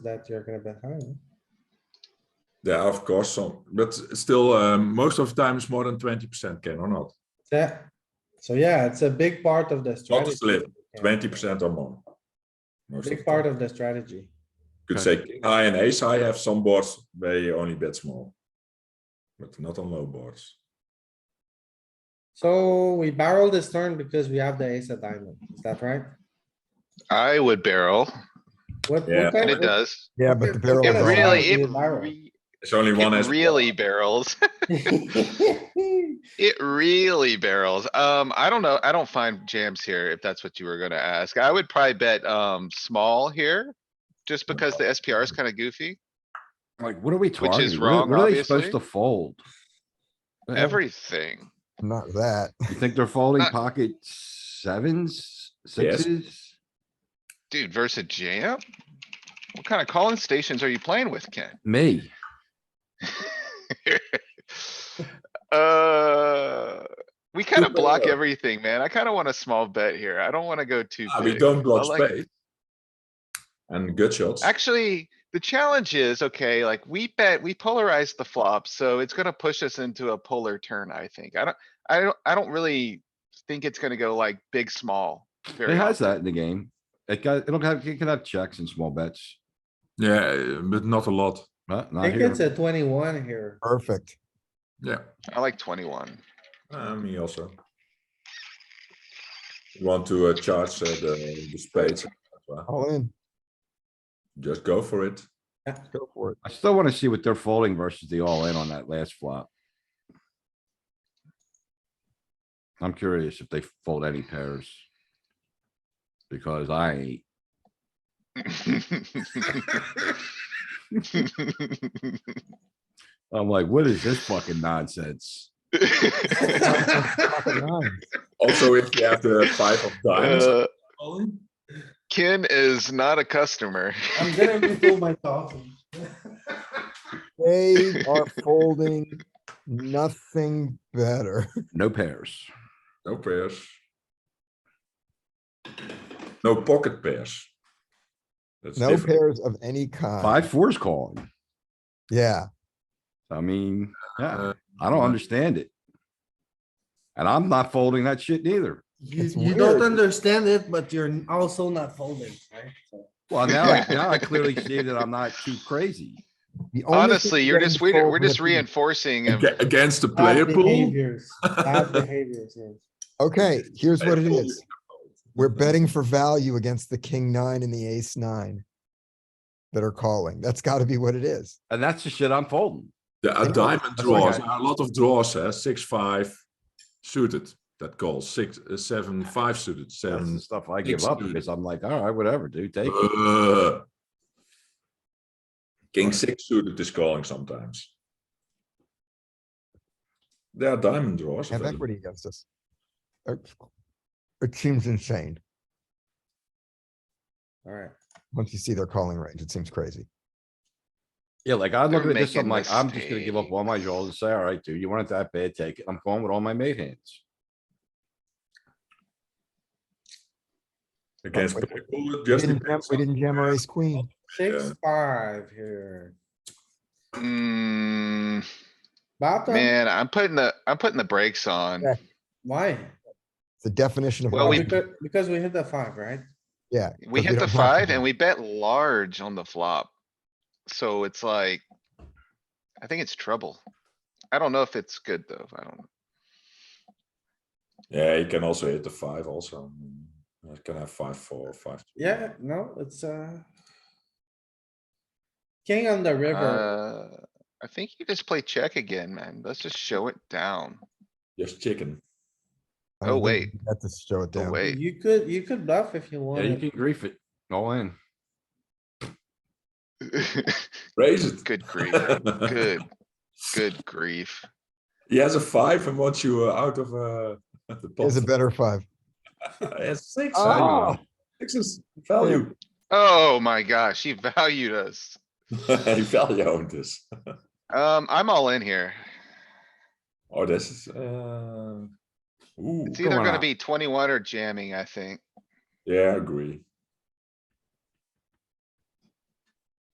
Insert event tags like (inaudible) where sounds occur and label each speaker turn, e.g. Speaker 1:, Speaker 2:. Speaker 1: that you're gonna bet high. huh?
Speaker 2: Yeah, of course, some, but still, um, most of the time it's more than twenty percent can or not,
Speaker 1: Yeah, so yeah, it's a big part of the
Speaker 2: not a
Speaker 1: strategy.
Speaker 2: slip,
Speaker 1: Yeah.
Speaker 2: twenty percent or more. Most of
Speaker 1: Big
Speaker 2: the time.
Speaker 1: part of the strategy.
Speaker 2: Could say king high and ace high have some boards where you only bet small. But not on low boards.
Speaker 1: So we barrel this turn because we have the ace of diamond, is that right?
Speaker 3: I would barrel,
Speaker 1: What- what
Speaker 2: Yeah.
Speaker 1: kind
Speaker 3: and
Speaker 1: of-
Speaker 3: it
Speaker 1: (laughs)
Speaker 3: does.
Speaker 4: oh, Yeah, but the barrel.
Speaker 3: It
Speaker 1: Oh, Yeah, but
Speaker 4: is-
Speaker 3: really,
Speaker 1: you
Speaker 3: it
Speaker 1: barrel.
Speaker 3: re-
Speaker 2: There's only one.
Speaker 3: it
Speaker 2: ace
Speaker 3: really
Speaker 2: block.
Speaker 3: barrels. (laughs) It really barrels. Um, I don't know. I don't find jams here, if that's what you were gonna ask. I would probably bet, um, small here. Just because the SPR is kinda goofy.
Speaker 5: Like, what are we
Speaker 3: is
Speaker 5: targeting?
Speaker 3: wrong,
Speaker 5: What what are they supposed
Speaker 3: obviously.
Speaker 5: to fold? Uh,
Speaker 3: Everything.
Speaker 4: (laughs) Not that.
Speaker 5: You think they're folding
Speaker 3: Not-
Speaker 5: pocket sevens,
Speaker 2: Yes.
Speaker 5: sixes?
Speaker 3: Dude, versus jam? What kind of calling stations are you playing with,
Speaker 5: (laughs)
Speaker 3: Ken?
Speaker 5: Me,
Speaker 3: Uh, we kinda
Speaker 2: bet
Speaker 3: block
Speaker 2: though.
Speaker 3: everything, man. I kinda want a small bet here. I don't wanna go too
Speaker 2: Ah, We
Speaker 3: big.
Speaker 2: don't block
Speaker 3: I like-
Speaker 2: spades. And good shots.
Speaker 3: Actually, the challenge is, okay, like we bet, we polarize the flop, so it's gonna push us into a polar turn, I think. I don't, I don't, I don't really think it's gonna go like big, small.
Speaker 5: it
Speaker 3: very
Speaker 5: has
Speaker 3: often.
Speaker 5: that in the game. It got, it'll have, it can have checks and small bets,
Speaker 2: Yeah, but not a lot.
Speaker 5: but
Speaker 1: I
Speaker 5: not
Speaker 1: think
Speaker 5: here.
Speaker 1: it's a twenty-one here.
Speaker 4: Perfect.
Speaker 2: Yeah,
Speaker 3: I like twenty-one.
Speaker 2: uh, me also. Want to uh, charge uh, the, the spades,
Speaker 4: All in.
Speaker 2: just go for it.
Speaker 4: Go for it.
Speaker 5: I still wanna see what they're folding versus the all in on that last flop. I'm curious if they fold any pairs. Because I ain't. I'm like, what is this fucking nonsense?
Speaker 4: Nine.
Speaker 2: Also, if you have the five of diamonds,
Speaker 3: Uh,
Speaker 2: Colin,
Speaker 3: Ken is not a customer.
Speaker 1: I'm gonna refill my coffee.
Speaker 3: (laughs)
Speaker 4: They are folding nothing better. (laughs)
Speaker 5: No pairs.
Speaker 2: no pairs. No pocket pairs. That's
Speaker 4: No
Speaker 2: different.
Speaker 4: pairs of any kind.
Speaker 5: Five fours calling.
Speaker 4: Yeah,
Speaker 5: I mean, yeah,
Speaker 2: Uh,
Speaker 5: I don't
Speaker 2: yeah.
Speaker 5: understand it. And I'm not folding that shit neither.
Speaker 6: You,
Speaker 4: It's
Speaker 6: you don't
Speaker 4: weird.
Speaker 6: understand it, but you're also not folding, right? So-
Speaker 5: Well, now, I- now I clearly see that I'm not too crazy.
Speaker 4: The only thing
Speaker 3: Honestly, you're
Speaker 4: getting
Speaker 3: just, we're,
Speaker 4: sold
Speaker 3: we're
Speaker 4: in the
Speaker 3: just
Speaker 4: field.
Speaker 3: reinforcing him.
Speaker 2: Aga- Against the
Speaker 5: Ah,
Speaker 2: player
Speaker 1: Bad
Speaker 2: pool.
Speaker 1: behaviors,
Speaker 2: (laughs)
Speaker 1: bad behaviors, yes.
Speaker 4: (laughs) Okay, here's what it
Speaker 2: Player pool.
Speaker 4: is. We're betting for value against the king nine and the ace nine. That are calling. That's gotta be what it is.
Speaker 5: And that's the shit I'm folding.
Speaker 2: Yeah, a
Speaker 4: Yeah.
Speaker 2: diamond
Speaker 5: what I
Speaker 2: draws,
Speaker 5: got.
Speaker 2: a lot of draws, eh? six, five suited, that calls, six, uh, seven, five suited,
Speaker 5: That's the
Speaker 2: seven.
Speaker 5: stuff I give up because I'm like, all right, whatever, dude, take it.
Speaker 2: Uh, King six suited is calling sometimes. There are diamond draws.
Speaker 4: Have
Speaker 2: available.
Speaker 4: equity against us. It- It seems insane.
Speaker 1: Alright,
Speaker 4: Once you see their calling range, it seems crazy.
Speaker 5: Yeah, like I look
Speaker 3: They're
Speaker 5: at this, I'm
Speaker 3: making
Speaker 5: like, I'm just gonna give up all my draws and say, all right, dude, you want it that bad, take it. I'm going with all my made hands.
Speaker 2: Against
Speaker 4: Wait,
Speaker 2: player pool, it
Speaker 4: We
Speaker 2: just
Speaker 4: didn't jam,
Speaker 2: depends
Speaker 4: we
Speaker 2: on-
Speaker 4: didn't jam our ace queen.
Speaker 1: six, five here.
Speaker 3: Mm,
Speaker 1: Bottom,
Speaker 3: man, I'm putting the, I'm putting the brakes on.
Speaker 4: Yeah.
Speaker 1: why?
Speaker 4: The definition of.
Speaker 3: Well, we-
Speaker 4: value.
Speaker 1: Because, because we hit the five, right?
Speaker 4: Yeah.
Speaker 3: We
Speaker 4: 'cause
Speaker 3: hit the
Speaker 4: don't have to
Speaker 3: five and
Speaker 4: do-
Speaker 3: we bet large on the flop. So it's like, I think it's trouble. I don't know if it's good though. I don't, know.
Speaker 2: Yeah, you can also hit the five also. You can have five, four, five. two.
Speaker 1: Yeah, no, it's, uh. King on the river,
Speaker 3: uh, I think you just play check again, man. Let's just show it down. (laughs)
Speaker 2: Just chicken.
Speaker 4: I don't
Speaker 3: Oh,
Speaker 4: think we Got to show it
Speaker 3: Oh,
Speaker 4: down.
Speaker 3: wait.
Speaker 1: you could, you could bluff if you
Speaker 5: Yeah, you can
Speaker 1: wanted.
Speaker 5: grief it all in.
Speaker 2: Raise it.
Speaker 3: Good
Speaker 2: (laughs)
Speaker 3: grief, good, good grief.
Speaker 2: He has a five and wants you uh, out of uh, the pot.
Speaker 4: Here's a better five.
Speaker 2: He has six.
Speaker 3: Ah.
Speaker 4: Oh.
Speaker 2: Six is
Speaker 3: (laughs)
Speaker 2: value.
Speaker 3: Oh my gosh, he valued us.
Speaker 2: He value owned this.
Speaker 3: Um, I'm all in here.
Speaker 2: Oh, this is, uh. Ooh,
Speaker 3: It's e- either
Speaker 5: on
Speaker 3: gonna
Speaker 5: up.
Speaker 3: be twenty-one or jamming, I think.
Speaker 2: yeah, I agree.